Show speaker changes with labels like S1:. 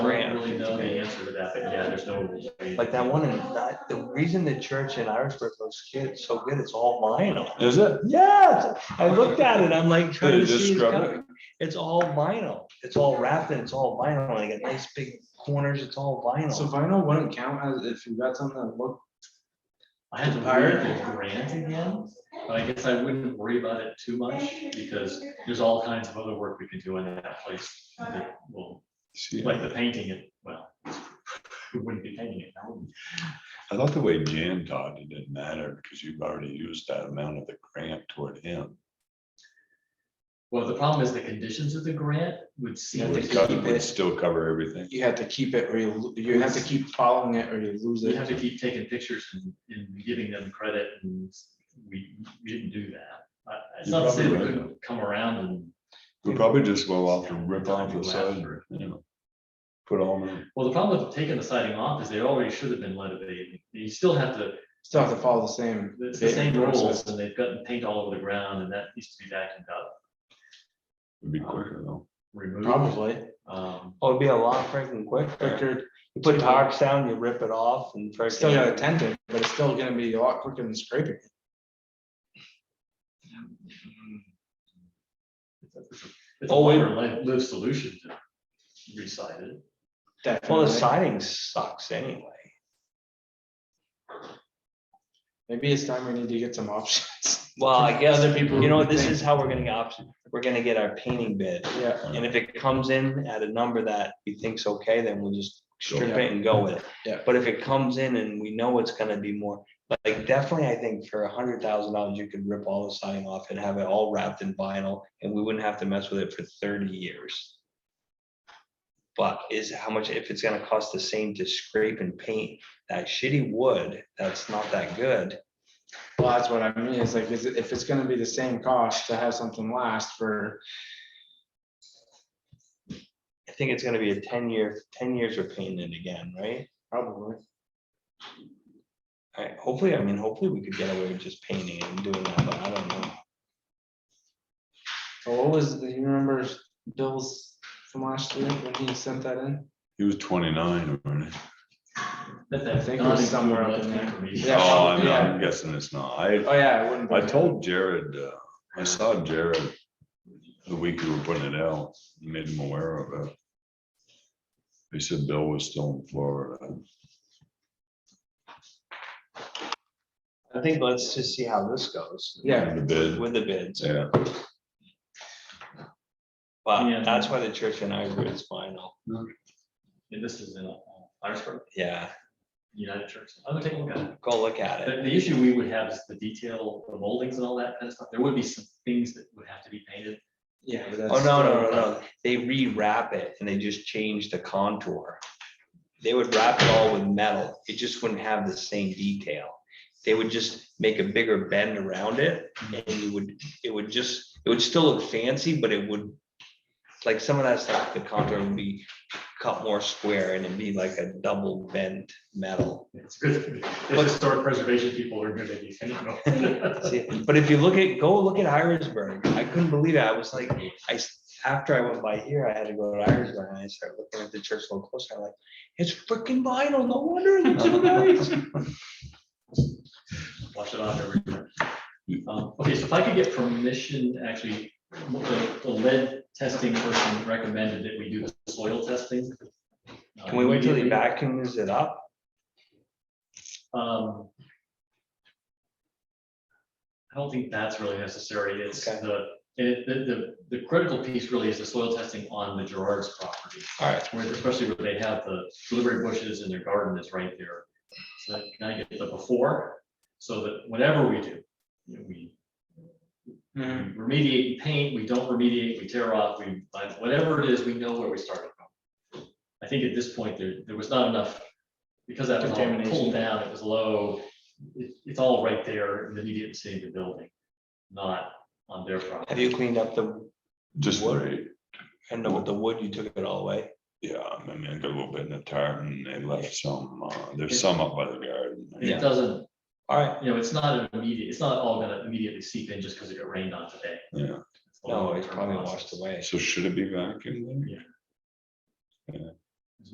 S1: really know the answer to that, but yeah, there's no.
S2: Like that one, and that, the reason the church in Irisburg looks good, so good, it's all vinyl.
S3: Is it?
S2: Yeah, I looked at it, I'm like, trying
S3: Did
S2: to
S3: you just
S2: see. it's
S3: scrub
S2: got- It's all vinyl, it's all wrapped and it's all vinyl, and it got nice big corners, it's all
S4: So
S2: vinyl.
S4: vinyl wouldn't count as if you got something that looked,
S1: I had to hire the grant again, but I guess I wouldn't worry about it too much because there's all kinds of other work we can do in that place. that will-
S3: See,
S1: Like the painting, it, well, we wouldn't be painting it. that wouldn't-
S3: I thought the way Jan taught it didn't matter because you've already used that amount of the grant toward him.
S1: Well, the problem is the conditions of the grant would seem to
S3: Would
S1: keep
S3: co- would
S1: it,
S3: still cover everything.
S4: you had to keep it or you, lo- you have to keep following it or you lose
S1: you have to
S4: it.
S1: keep taking pictures and, and giving them credit and we we didn't do that. I- It's
S3: You're
S1: not to say we
S3: probably right.
S1: couldn't come around and,
S3: We probably just go off and rip off the side, you know. Put all the,
S1: well, the problem with taking the siding off is they already should have been leaded. You still have to
S4: Still have to follow the same.
S1: It's the same
S4: process.
S1: rules and they've gotten paint all over the ground and that needs to be vacuumed up,
S3: it'd be quicker though.
S1: removed.
S2: Probably.
S1: Um,
S2: Oh, it'd be a lot freaking quick.
S4: Quicker,
S2: You put tarps down, you rip it off and
S4: it's still got a
S2: freaking.
S4: tent in, but it's still gonna be a lot quicker than scraping. it.
S1: It's a- it's a
S2: Oh, wait.
S1: longer li- lived solution to recite it.
S2: Well, the
S4: Definitely.
S2: siding sucks anyway.
S4: Maybe it's time we need to get some options.
S2: Well, I guess,
S4: Other people
S2: you know,
S4: who
S2: this
S4: think-
S2: is how we're gonna get options. We're gonna get our painting bid.
S4: Yeah,
S2: And if it comes in at a number that we think's okay, then we'll just strip
S4: Yeah.
S2: it and go with it.
S4: Yeah.
S2: But if it comes in and we know it's gonna be more, like definitely, I think for a hundred thousand dollars, you could rip all the siding off and have it all wrapped in vinyl and we wouldn't have to mess with it for thirty years. But is how much, if it's gonna cost the same to scrape and paint that shitty wood, that's not that good.
S4: well, that's what I mean, it's like, is it, if it's gonna be the same cost to have something last for
S2: I think it's gonna be a ten year, ten years we're painting it again, right?
S4: probably.
S2: I, hopefully, I mean, hopefully we could get away with just painting it and doing that, but I don't know.
S4: So What was, do you remember Bill's from last year when he sent that in?
S3: He was twenty-nine, wasn't he?
S1: That-
S4: I
S1: that
S4: think it
S1: non-inclusive
S4: was somewhere up
S1: left
S4: in there.
S1: macrame.
S4: Yeah.
S3: Oh, I'm-
S4: yeah.
S3: I'm guessing it's not. I,
S4: Oh, yeah, it wouldn't be.
S3: I told Jared, uh, I saw Jared the week we were putting it out, made him aware of it. He said Bill was still in Florida.
S2: I think let's just see how this goes.
S4: Yeah.
S3: The bid,
S2: With the bids,
S3: yeah.
S1: Yeah.
S2: but that's why the church in Ivory is final,
S1: And this is in uh, Irisburg,
S2: yeah,
S1: United Church. I'm gonna take a look at it.
S2: go look at
S1: The,
S2: it,
S1: the issue we would have is the detail, the moldings and all that kind of stuff. There would be some things that would have to be painted.
S4: Yeah. but
S2: oh,
S4: that's
S2: no,
S4: still-
S2: no, no, no, they rewrap it and they just change the contour. They would wrap it all with metal, it just wouldn't have the same detail, they would just make a bigger bend around it, and you would, it would just, it would still look fancy, but it would. Like some of that stuff, the contour would be cut more square and it'd be like a double bent metal.
S1: It's good. The historic preservation people are good at these things. you know.
S2: See, But if you look at, go look at Irisburg, I couldn't believe it, I was like, I, s- after I went by here, I had to go to Irisburg, and I started looking at the church a little closer, I'm like, it's freaking vinyl, no wonder it looks so nice.
S1: Wash it off every year. Um, Okay, so if I could get permission, actually, the the lead testing person recommended that we do the soil testing. uh,
S2: Can we wait till he
S1: immediately.
S2: vacuums it up?
S1: Um, I don't think that's really necessary. It's
S2: Okay.
S1: the, it- the, the, the critical piece really is the soil testing on the Gerard's property.
S2: Alright,
S1: where especially where they have the blueberry bushes and their garden is right there. So can I get the before, so that whatever we do, you know, we we
S4: Mhm.
S2: Mm-hmm.
S1: remediate and paint, we don't remediate, we tear off, we, but whatever it is, we know where we started from. I think at this point, there, there was not enough, because that was all
S4: Contamination.
S1: pulled down, it was low, it, it's all right there in the immediate vicinity of the building, not on their
S2: have
S1: property.
S2: you cleaned up the,
S3: Just worried.
S2: and with the wood, you took it all away?
S3: Yeah, I mean, I got a little bit in the tartan, they left some, uh, there's some up by the garden.
S1: It doesn't,
S2: Alright,
S1: you know, it's not an immediate, it's not all gonna immediately seep in just because it got rained on today.
S3: Yeah,
S1: It's a
S2: no, it's
S1: long-term
S2: probably
S1: process.
S2: washed away.
S3: so should it be vacuumed? then?
S1: Yeah.
S3: Yeah.